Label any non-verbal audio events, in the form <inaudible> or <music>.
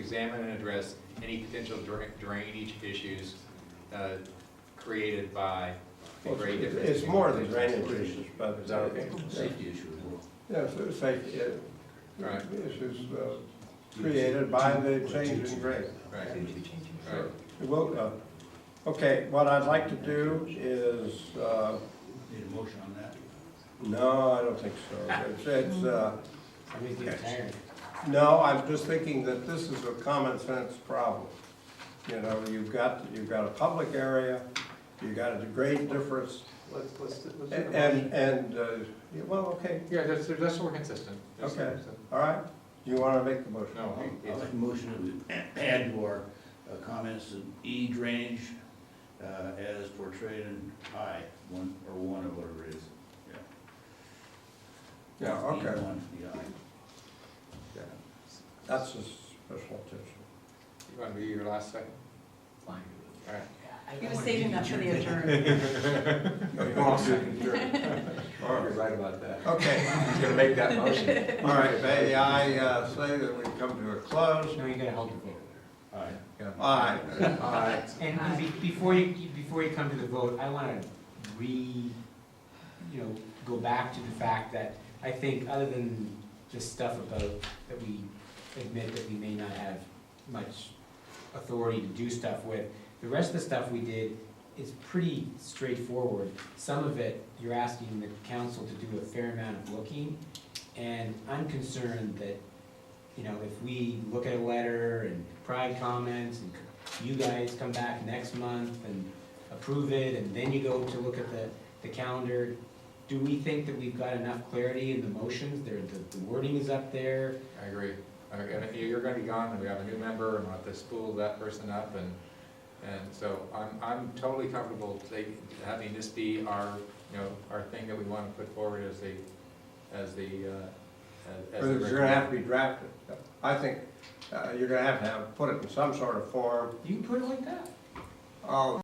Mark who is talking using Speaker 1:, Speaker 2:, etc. Speaker 1: examine and address any potential dra- drainage issues uh, created by the grade difference.
Speaker 2: It's more than drainage issues, but it's our.
Speaker 3: Safety issue as well.
Speaker 2: Yeah, so it's safety uh,
Speaker 1: Right.
Speaker 2: issues uh, created by the change in grade.
Speaker 1: Right, right.
Speaker 2: Well, uh, okay, what I'd like to do is, uh,
Speaker 3: Need a motion on that?
Speaker 2: no, I don't think so. It's, it's, uh,
Speaker 4: I mean, get tired.
Speaker 2: No, I'm just thinking that this is a common sense problem. You know, you've got, you've got a public area, you've got a grade difference,
Speaker 5: Let's, let's, let's.
Speaker 2: a- and, and, uh, yeah, well, okay,
Speaker 5: Yeah, that's, that's all consistent. That's
Speaker 2: Okay.
Speaker 5: all
Speaker 2: all right. You want to make the motion?
Speaker 1: No, it-
Speaker 3: I'll
Speaker 1: it's-
Speaker 3: make a motion to add to our uh, comments of E drainage uh, as portrayed in I, one, or one or whatever it is.
Speaker 2: Yeah,
Speaker 3: E
Speaker 2: okay,
Speaker 3: one, the I.
Speaker 2: that's a special attention.
Speaker 1: You want to be your last second? All right.
Speaker 6: He was saving that for the adjournment.
Speaker 1: You're right about that.
Speaker 2: Okay,
Speaker 1: He's gonna make that
Speaker 5: <laughs>
Speaker 1: motion.
Speaker 2: all right, may I uh, say that we come to a close?
Speaker 4: No, you gotta hold your vote.
Speaker 3: Aye.
Speaker 2: Aye.
Speaker 1: Aye.
Speaker 4: And be- before you, before you come to the vote, I want to re, you know, go back to the fact that I think, other than the stuff about, that we admit that we may not have much authority to do stuff with, the rest of the stuff we did is pretty straightforward. Some of it, you're asking the council to do a fair amount of looking, and I'm concerned that, you know, if we look at a letter and pride comments and you guys come back next month and approve it, and then you go to look at the, the calendar. Do we think that we've got enough clarity in the motions, there, the- the wording is up there?
Speaker 1: I agree. Okay, And if you- you're gonna be gone, and we have a new member, and we'll have to spool that person up, and, and so I'm, I'm totally comfortable taking, having this be our, you know, our thing that we wanna put forward as the, as the, uh, as- as.
Speaker 2: Because
Speaker 1: the
Speaker 2: it's gonna have to be drafted. I think uh, you're gonna have to have, put it in some sort of form.
Speaker 4: You can put it like that.
Speaker 2: Oh,